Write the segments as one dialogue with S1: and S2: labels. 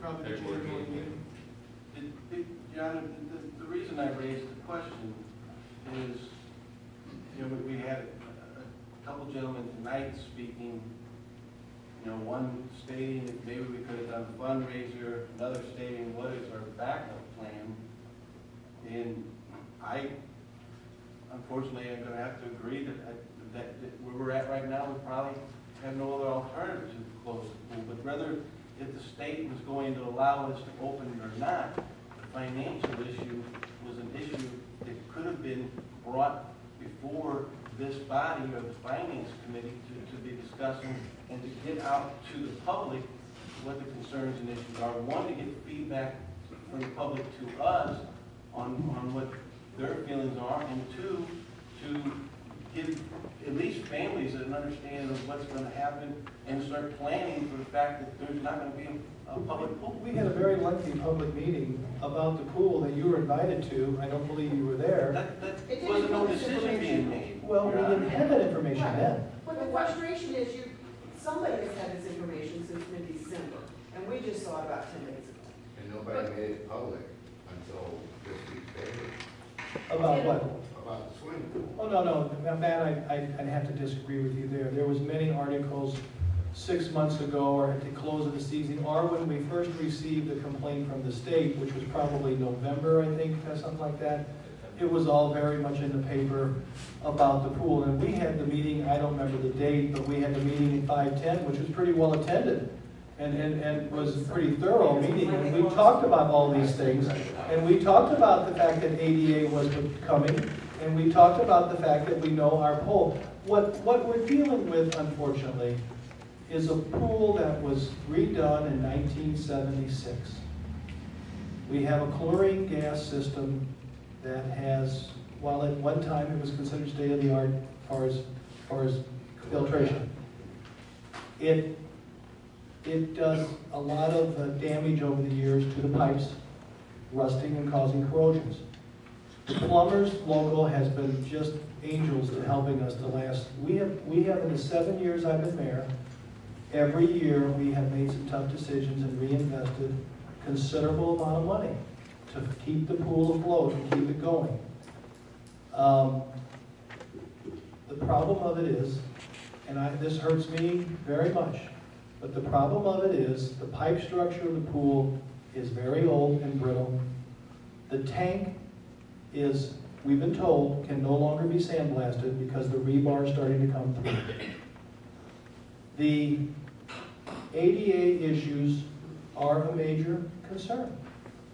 S1: probably the
S2: February
S1: January
S2: meeting.
S1: meeting.
S3: It- it- John, the- the, the reason I raised the question is, you know, we had a couple gentlemen tonight speaking, you know, one stating that maybe we could have done a fundraiser, another stating what is our backup plan. And I, unfortunately, I'm gonna have to agree that, I- that, that where we're at right now, we probably have no other alternative to close the pool, but rather if the state was going to allow us to open it or not, the financial issue was an issue that could have been brought before this body or the finance committee to, to be discussing and to get out to the public what the concerns and issues are. One, to get feedback from the public to us on, on what their feelings are, and two, to give at least families an understanding of what's gonna happen and start planning for the fact that there's not gonna be a public pool.
S4: We had a very lengthy public meeting about the pool that you were invited to. I don't believe you were there.
S3: That, that
S5: didn't
S3: wasn't no
S5: include
S3: decision being
S5: information.
S3: made.
S4: Well, we
S3: Your Honor.
S4: didn't have that information
S5: Right.
S4: then.
S5: But the frustration is you, somebody has had this information since mid-December, and we just saw it about ten days ago.
S2: And nobody made it public until this week's paper
S4: About what?
S2: about the swimming pool.
S4: Oh, no, no, Matt, I, I- I'd have to disagree with you there. There was many articles six months ago or at the close of the season, or when we first received the complaint from the state, which was probably November, I think, or something like that. It was all very much in the paper about the pool. And we had the meeting, I don't remember the date, but we had the meeting at five-ten, which was pretty well attended. And, and, and was a pretty thorough meeting, and we talked about all these things. And we talked about the fact that ADA was coming, and we talked about the fact that we know our pool. What, what we're dealing with unfortunately is a pool that was redone in nineteen seventy-six. We have a chlorine gas system that has, while at one time it was considered state-of-the-art as far as, far as filtration, it, it does a lot of uh, damage over the years to the pipes, rusting and causing corrosions. The plumbers local has been just angels to helping us the last, we have, we have in the seven years I've been mayor, every year we have made some tough decisions and reinvested considerable amount of money to keep the pool afloat and keep it going. Um, The problem of it is, and I, this hurts me very much, but the problem of it is, the pipe structure of the pool is very old and brittle. The tank is, we've been told, can no longer be sandblasted because the rebar is starting to come through. The ADA issues are a major concern.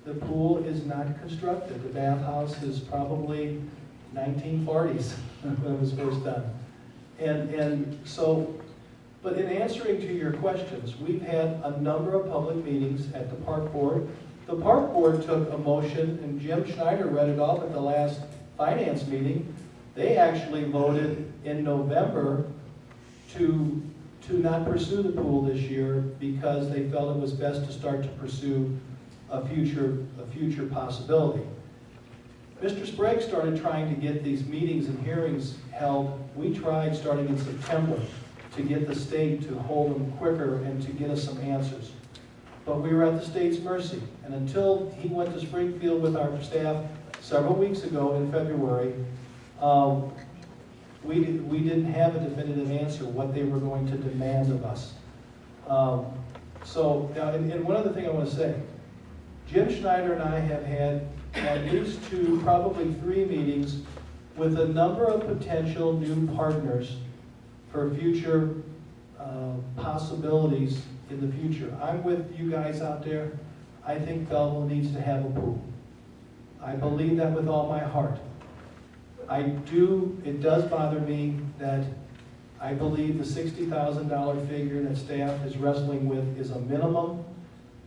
S4: The pool is not constructed, the bathhouse is probably nineteen forties when it was first done. And, and so, but in answering to your questions, we've had a number of public meetings at the park board. The park board took a motion, and Jim Schneider read it off at the last finance meeting. They actually voted in November to, to not pursue the pool this year because they felt it was best to start to pursue a future, a future possibility. Mr. Sprague started trying to get these meetings and hearings held, we tried starting in September to get the state to hold them quicker and to get us some answers. But we were at the state's mercy, and until he went to Springfield with our staff several weeks ago in February, um, we, di- we didn't have a definitive answer what they were going to demand of us. Um, So, now, and, and one other thing I want to say, Jim Schneider and I have had at least two, probably three meetings with a number of potential new partners for future uh, possibilities in the future. I'm with you guys out there. I think Belleville needs to have a pool. I believe that with all my heart. I do, it does bother me that I believe the $60,000 figure that staff is wrestling with is a minimum.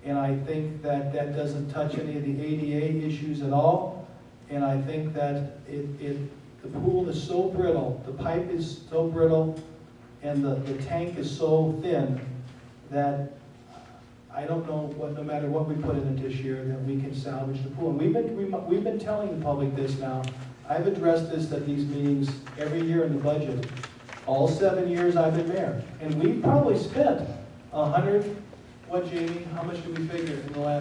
S4: And I think that that doesn't touch any of the ADA issues at all. And I think that it, it, the pool is so brittle, the pipe is so brittle, and the, the tank is so thin that I don't know what, no matter what we put in it this year, that we can salvage the pool. And we've been, remo- we've been telling the public this now. I've addressed this at these meetings every year in the budget, all seven years I've been mayor. And we've probably spent a hundred What, Jamie, how much do we figure in the last